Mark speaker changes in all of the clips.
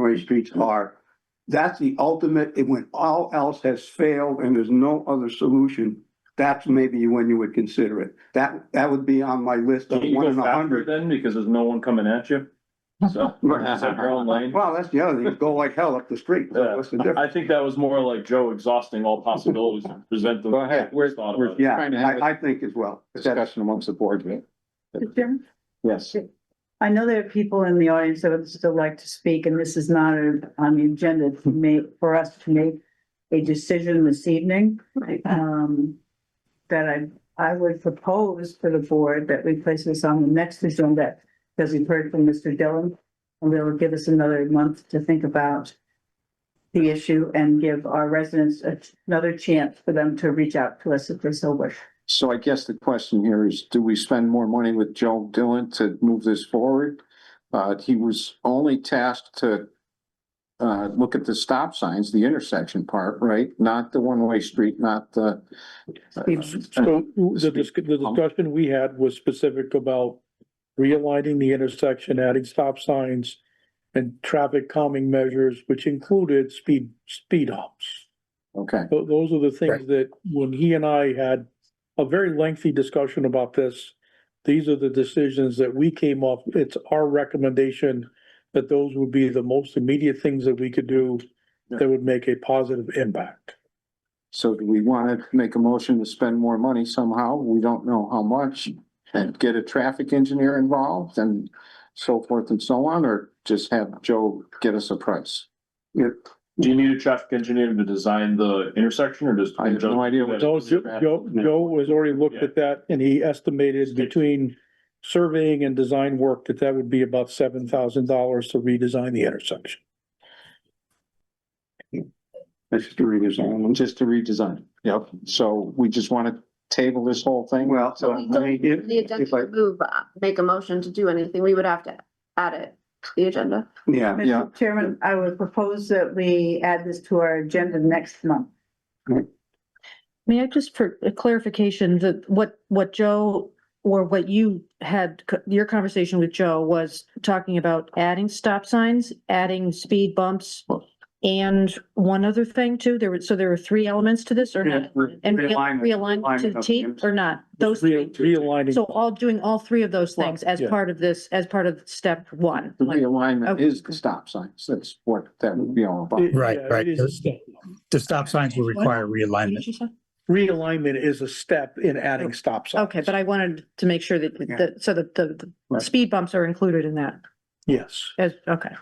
Speaker 1: one-way streets are. That's the ultimate, and when all else has failed and there's no other solution, that's maybe when you would consider it. That, that would be on my list of
Speaker 2: Can't you
Speaker 1: one
Speaker 2: go
Speaker 1: in a
Speaker 2: faster
Speaker 1: hundred.
Speaker 2: then, because there's no one coming at you? So, is that your own lane?
Speaker 1: Well, that's the other thing, go like hell up the street, so what's the difference?
Speaker 2: I think that was more like Joe exhausting all possibilities and present the.
Speaker 3: Go ahead. We're-
Speaker 2: thought
Speaker 3: we're-
Speaker 2: about it.
Speaker 1: Yeah,
Speaker 3: Trying to have
Speaker 1: I, I think as well. That's-
Speaker 3: discussion amongst the board, right?
Speaker 4: Mr. Chairman,
Speaker 3: Yes.
Speaker 4: I know there are people in the audience that would still like to speak, and this is not a- on the agenda to make, for us to make a decision this evening. Um, that I, I would propose to the board that we place this on the next agenda, because we've heard from Mr. Dillon. And they'll give us another month to think about the issue and give our residents a- another chance for them to reach out to us if they so wish.
Speaker 3: So I guess the question here is, do we spend more money with Joe Dillon to move this forward? Uh, he was only tasked to uh, look at the stop signs, the intersection part, right? Not the one-way street, not the. uh,
Speaker 5: So the dis- the discussion we had was specific about realigning the intersection, adding stop signs and traffic calming measures, which included speed, speed humps.
Speaker 3: Okay,
Speaker 5: Tho- Those are the things that when he and I had a very lengthy discussion about this, these are the decisions that we came up, it's our recommendation that those would be the most immediate things that we could do that would make a positive impact.
Speaker 3: so do we want to make a motion to spend more money somehow? We don't know how much. And get a traffic engineer involved and so forth and so on, or just have Joe get us a price?
Speaker 2: Do you need a traffic engineer to design the intersection or does?
Speaker 3: I have no idea what-
Speaker 5: No, Joe, Joe, Joe has already looked at that and he estimated between surveying and design work that that would be about seven thousand dollars to redesign the intersection.
Speaker 1: That's just a redesign.
Speaker 3: Just to redesign. Yep. So we just want to table this whole thing?
Speaker 1: Well,
Speaker 3: So,
Speaker 1: I mean, if-
Speaker 6: The agenda
Speaker 1: if I-
Speaker 6: to move, uh, make a motion to do anything, we would have to add it to the agenda.
Speaker 1: yeah,
Speaker 3: Yeah.
Speaker 4: Mr. Chairman, I would propose that we add this to our agenda next month.
Speaker 7: May I just for a clarification, that what, what Joe, or what you had, co- your conversation with Joe was talking about adding stop signs, adding speed bumps, and one other thing too, there were, so there were three elements to this or
Speaker 1: Yeah,
Speaker 7: not?
Speaker 1: re-
Speaker 7: And
Speaker 1: realignment-
Speaker 7: realigned to
Speaker 1: realignment
Speaker 7: the
Speaker 1: of
Speaker 7: T
Speaker 1: the-
Speaker 7: or not? Those
Speaker 5: Real-
Speaker 7: three.
Speaker 5: Realigning.
Speaker 7: So all, doing all three of those
Speaker 5: Well,
Speaker 7: things as
Speaker 5: yeah.
Speaker 7: part of this, as part of step one.
Speaker 3: The
Speaker 7: like-
Speaker 3: realignment
Speaker 7: Okay.
Speaker 3: is the stop signs. That's what that would be all about.
Speaker 5: It-
Speaker 8: Right,
Speaker 5: yeah,
Speaker 8: right.
Speaker 5: it is a
Speaker 8: The stop signs will require
Speaker 7: What did
Speaker 8: realignment.
Speaker 7: you say?
Speaker 5: Realignment is a step in adding stop signs.
Speaker 7: Oh, Okay, but I wanted to make sure that,
Speaker 1: Yeah.
Speaker 7: that, so that the, the
Speaker 3: Right.
Speaker 7: speed bumps are included in that,
Speaker 5: Yes.
Speaker 7: as, okay.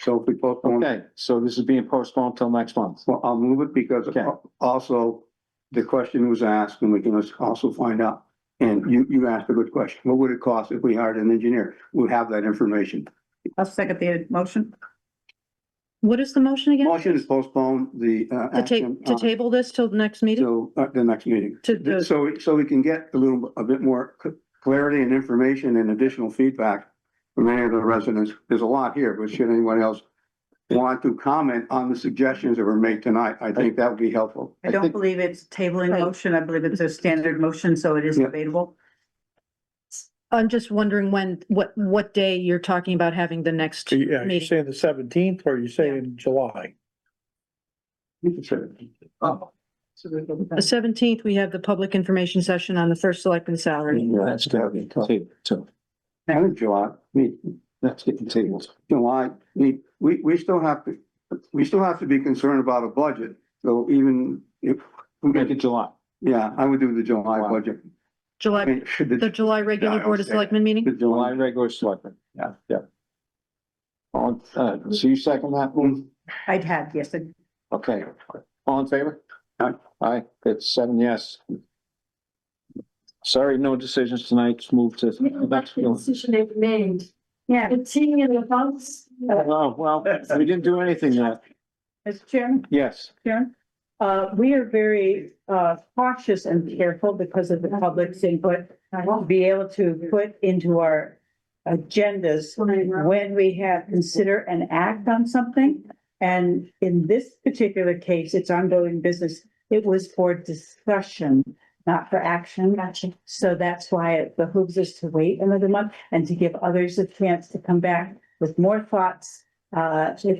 Speaker 1: So if we postpone
Speaker 3: Okay, so this is being postponed till next month.
Speaker 1: Well, I'll move it because
Speaker 3: Okay.
Speaker 1: al- also the question was asked and we can als- also find out. And you, you asked a good question. What would it cost if we hired an engineer? We have that information.
Speaker 4: I'll second the motion.
Speaker 7: What is the motion again?
Speaker 1: Motion is postpone the, uh,
Speaker 7: To ta-
Speaker 1: action.
Speaker 7: to
Speaker 1: on-
Speaker 7: table this till the next meeting?
Speaker 1: till, uh, the next meeting.
Speaker 7: To the-
Speaker 1: So, so we can get a little, a bit more c- clarity and information and additional feedback from any of the residents. There's a lot here, but should anyone else want to comment on the suggestions that were made tonight, I think that would be helpful.
Speaker 4: I Oh.
Speaker 3: I
Speaker 4: don't
Speaker 3: think-
Speaker 4: believe it's tabling
Speaker 7: Right.
Speaker 4: motion. I believe it's a standard motion, so it is
Speaker 1: Yeah.
Speaker 4: debatable.
Speaker 7: I'm just wondering when, what, what day you're talking about having the next
Speaker 5: So you- yeah, you're
Speaker 7: meeting?
Speaker 5: saying the seventeenth or you're saying July?
Speaker 7: The seventeenth, we have the public information session on the first selectman salary.
Speaker 3: Yeah, that's getting tabled too.
Speaker 1: And in July, we-
Speaker 3: That's getting tabled.
Speaker 1: July, we, we, we still have to, we still have to be concerned about a budget, so even if,
Speaker 3: Make it July.
Speaker 1: yeah, I would do the July
Speaker 3: Wow.
Speaker 1: budget. I
Speaker 7: July,
Speaker 1: mean, should
Speaker 7: the
Speaker 1: the,
Speaker 7: July
Speaker 1: Yeah,
Speaker 7: regular
Speaker 1: I
Speaker 7: board of
Speaker 1: understand.
Speaker 7: selectmen meeting?
Speaker 1: the
Speaker 3: July
Speaker 1: July.
Speaker 3: regular selectmen.
Speaker 1: Yeah.
Speaker 3: Yeah. All, uh, so you second that one?
Speaker 4: I'd had, yes, I-
Speaker 3: Okay. All in favor?
Speaker 1: Aye.
Speaker 3: Aye, it's seven yes. Sorry, no decisions tonight. Let's Move to next. one.
Speaker 9: decision they've made. Yeah. The team in the house.
Speaker 3: Oh, well, we didn't do anything yet.
Speaker 4: Mr. Chairman,
Speaker 3: Yes.
Speaker 4: Chairman. Uh, we are very, uh, cautious and careful because of the public's input. I won't be able to put into our agendas when we have consider and act on something. And in this particular case, it's ongoing business. It was for discussion, not for action. So that's why it behooves us to wait another month and to give others a chance to come back with more thoughts Uh, if